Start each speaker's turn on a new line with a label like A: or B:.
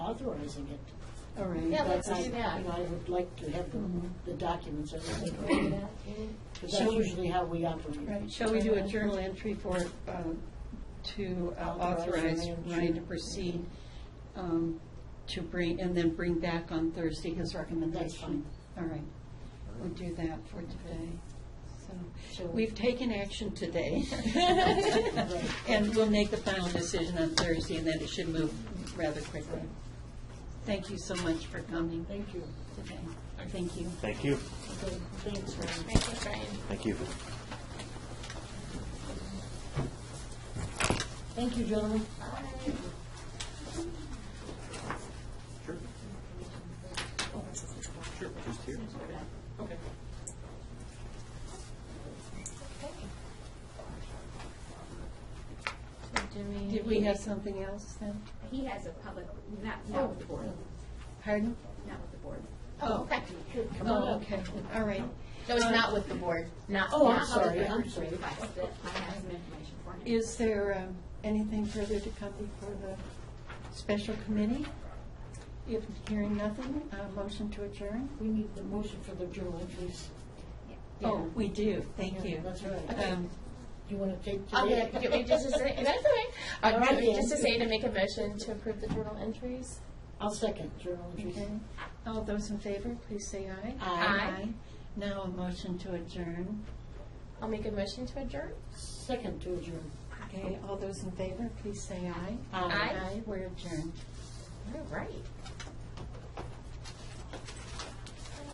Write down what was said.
A: authorizing it.
B: All right.
C: Yeah,
A: But
C: let's
A: I-
C: do that.
A: you know, I would like to have the, the documents, because that's
B: Shall we-
A: usually how we operate.
B: Right, shall we do a journal entry for, um, to uh,
A: Authorize
B: authorize Ryan
A: Ryan
B: to proceed um, to bring, and then bring back on Thursday his recommendation? All right, we'll do that for today. So,
A: So-
B: we've taken action today.
A: Right.
B: And we'll make the final decision on Thursday, and then it should move rather quickly. Thank you so much for coming
A: Thank you.
B: today. Thank you.
D: Thank you.
A: Okay, Thanks, Ryan.
C: Thank you,
D: Thank
C: Brian.
D: you.
A: Thank you, gentlemen.
B: Did we have something else then?
E: He has a public, not, not with the board,
B: Pardon?
E: not with the board.
B: Oh,
C: Okay.
B: Oh, okay, all right.
C: No, it's not with the board.
E: Not,
A: Oh, I'm
E: not public
A: sorry, I'm
E: records
A: sorry.
E: request, but I have some information for him.
B: Is there um, anything further to come before the special committee? If hearing nothing, uh motion to adjourn?
A: We need the motion for the journal entries.
B: Oh, we do, thank you.
A: That's right.
B: Um,
A: You want to take
C: I'll
A: today?
C: get, get me just a second. That's all right. Uh,
A: All right,
C: ju- just to
A: then.
C: say to make a motion to approve the journal entries.
A: I'll second journal entries.
B: okay. All those in favor, please say aye.
A: Aye.
B: Now a motion to adjourn.
C: I'll make a motion to adjourn.
A: Second to adjourn.
B: Okay, all those in favor, please say aye.
A: Aye.
C: Aye.
B: Aye, we're adjourned.
C: All right.